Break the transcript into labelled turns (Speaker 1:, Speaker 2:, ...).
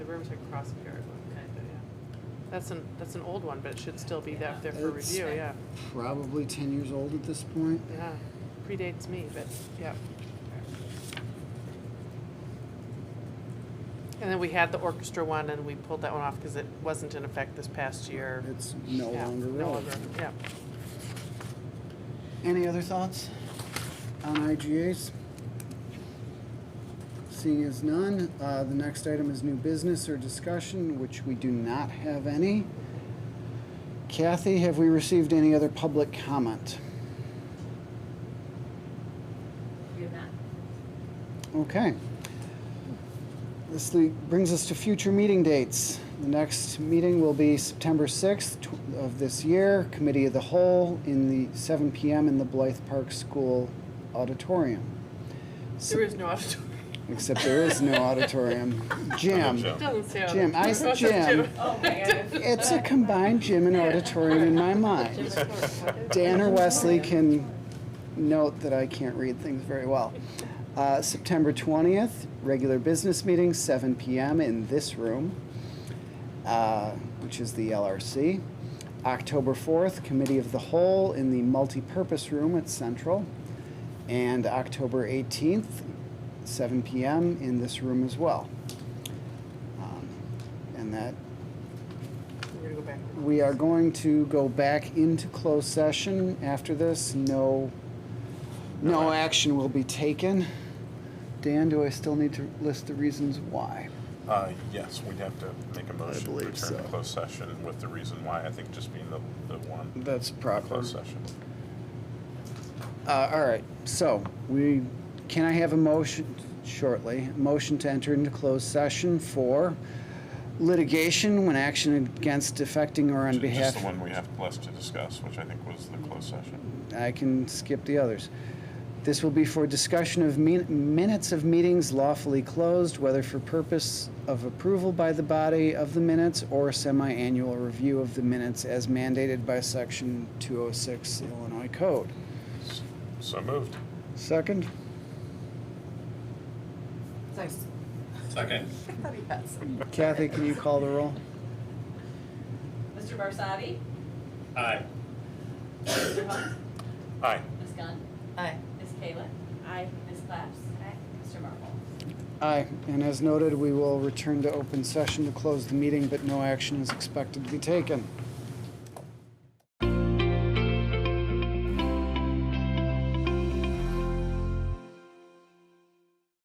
Speaker 1: Riverside Crossing Guard one.
Speaker 2: Okay.
Speaker 1: But, yeah. That's an, that's an old one, but it should still be
Speaker 2: Yeah.
Speaker 1: up there for
Speaker 3: It's-
Speaker 1: review, yeah.
Speaker 3: Probably ten years old at this point.
Speaker 1: Yeah, predates me, but, yeah. And then we had the orchestra one and we pulled that one off because it wasn't in effect this past year.
Speaker 3: It's no
Speaker 1: Yeah,
Speaker 3: longer
Speaker 1: no
Speaker 3: relevant.
Speaker 1: longer, Yeah.
Speaker 3: Any other thoughts on IGAs? Seeing as none, uh, the next item is new business or discussion, which we do not have any. Kathy, have we received any other public comment?
Speaker 2: We have not.
Speaker 3: Okay. This le- brings us to future meeting dates. The next meeting will be September 6th tw- of this year, Committee of the Whole, in the, 7 PM in the Blythe Park School Auditorium. S-
Speaker 1: There is no auditorium.
Speaker 3: Except there is no auditorium. Gym.
Speaker 1: It doesn't say auditorium.
Speaker 3: Jim, I said Jim. It's a combined gym and auditorium in my mind. Dan or Wesley can note that I can't read things very well. Uh, September 20th, regular business meeting, 7 p.m. in this room, uh, which is the LRC. October 4th, Committee of the Whole in the multipurpose room at Central. And October 18th, 7 p.m. in this room as well. Um, and that
Speaker 1: We're gonna go back.
Speaker 3: we are going to go back into closed session after this. No, no action will be taken. Dan, do I still need to list the reasons why?
Speaker 4: Uh, yes, we'd have to make a motion to
Speaker 3: believe
Speaker 4: return
Speaker 3: so.
Speaker 4: to closed session with the reason why, I think just being the, the one
Speaker 3: That's proper.
Speaker 4: closed session.
Speaker 3: Uh, all right, so we, can I have a motion shortly? Motion to enter into closed session for litigation when action against affecting or on
Speaker 4: Ju-
Speaker 3: behalf.
Speaker 4: Just the one we have less to discuss, which I think was the closed session.
Speaker 3: I can skip the others. This will be for discussion of min- minutes of meetings lawfully closed, whether for purpose of approval by the body of the minutes or semi-annual review of the minutes as mandated by section 206 Illinois Code.
Speaker 4: So moved.
Speaker 3: Second?
Speaker 4: Second.
Speaker 3: Kathy, can you call the roll?
Speaker 2: Mr. Barsadi?
Speaker 4: Aye.
Speaker 2: Mr. Hunt?
Speaker 4: Aye.
Speaker 2: Ms. Gunn? Aye. Ms. Kayla? Aye. Ms. Claps? Aye. Mr. Marvel?
Speaker 3: Aye, and as noted, we will return to open session to close the meeting, but no action is expected to be taken.